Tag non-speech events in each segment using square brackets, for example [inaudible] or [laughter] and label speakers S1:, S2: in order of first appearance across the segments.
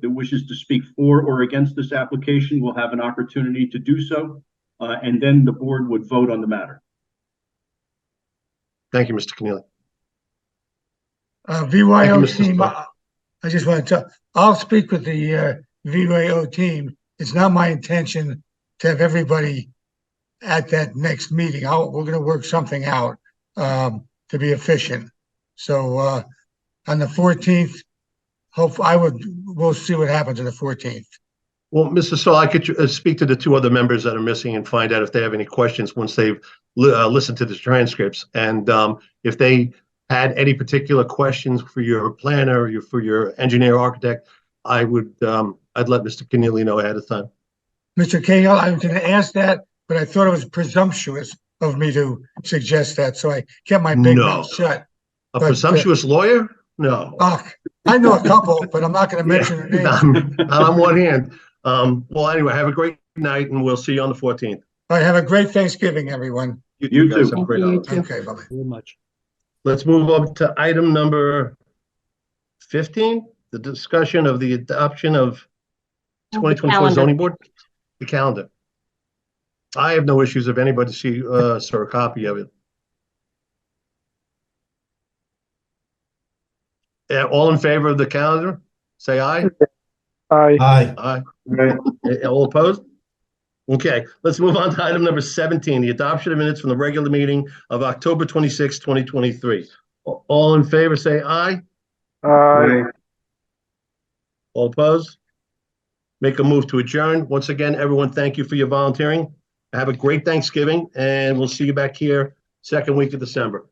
S1: that wishes to speak for or against this application will have an opportunity to do so, uh, and then the board would vote on the matter.
S2: Thank you, Mr. Keneally.
S3: Uh, VYO
S2: Mr.
S3: team,
S2: Stark.
S3: I I just want to, tell I'll speak with the uh, VYO team. It's not my intention to have everybody at that next meeting. I'll, we're gonna work something out um, to be efficient. So uh, on the fourteenth, hope, I would, we'll see what happens on the fourteenth.
S2: Well, Mr. Saul, I could uh, speak to the two other members that are missing and find out if they have any questions once they've li- uh, listened to the transcripts. And um, if they had any particular questions for your planner, your, for your engineer, architect, I would, um, I'd let Mr. Keneally know ahead of time.
S3: Mr. Cahill, I was gonna ask that, but I thought it was presumptuous of me to suggest that, so I kept my big
S2: No.
S3: mouth shut.
S2: A
S3: But, uh,
S2: presumptuous lawyer? No.
S3: Ugh, I know a couple, but I'm not gonna
S2: Yeah. [laughs]
S3: mention their names.
S2: I'm- I'm on one hand. Um, Well, anyway, have a great night and we'll see you on the 14th.
S3: All right, have a great Thanksgiving, everyone.
S1: You
S2: guys
S1: too.
S2: have a great
S4: Thank you, you
S2: holiday.
S4: too.
S3: Okay, bye-bye.
S5: Very much.
S2: Let's move on to item number 15, the discussion of the adoption of
S4: Of the
S2: 2024
S4: calendar.
S2: zoning board, the calendar. I have no issues if anybody see, uh, saw a copy of it. Yeah, Uh, all in favor of the calendar? Say
S4: [laughs]
S2: aye.
S6: Aye.
S7: Aye.
S2: Aye. Eh, All opposed? Okay, let's move on to item number 17, the adoption of minutes from the regular meeting of October 26, 2023. A- All in favor, say aye.
S6: Aye.
S2: All opposed? Make a move to adjourn. Once again, everyone, thank you for your volunteering. Have a great Thanksgiving, and we'll see you back here second week of December.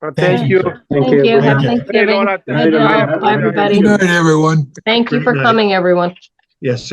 S6: Uh, Thank you.
S4: Thank you. Happy
S7: Thank
S6: Hey,
S4: Thanksgiving.
S6: Donat.
S4: Good night,
S6: Happy-
S4: everybody.
S7: Good night, everyone.
S4: Thank you
S2: Good
S4: for
S2: night.
S4: coming, everyone.
S2: Yes.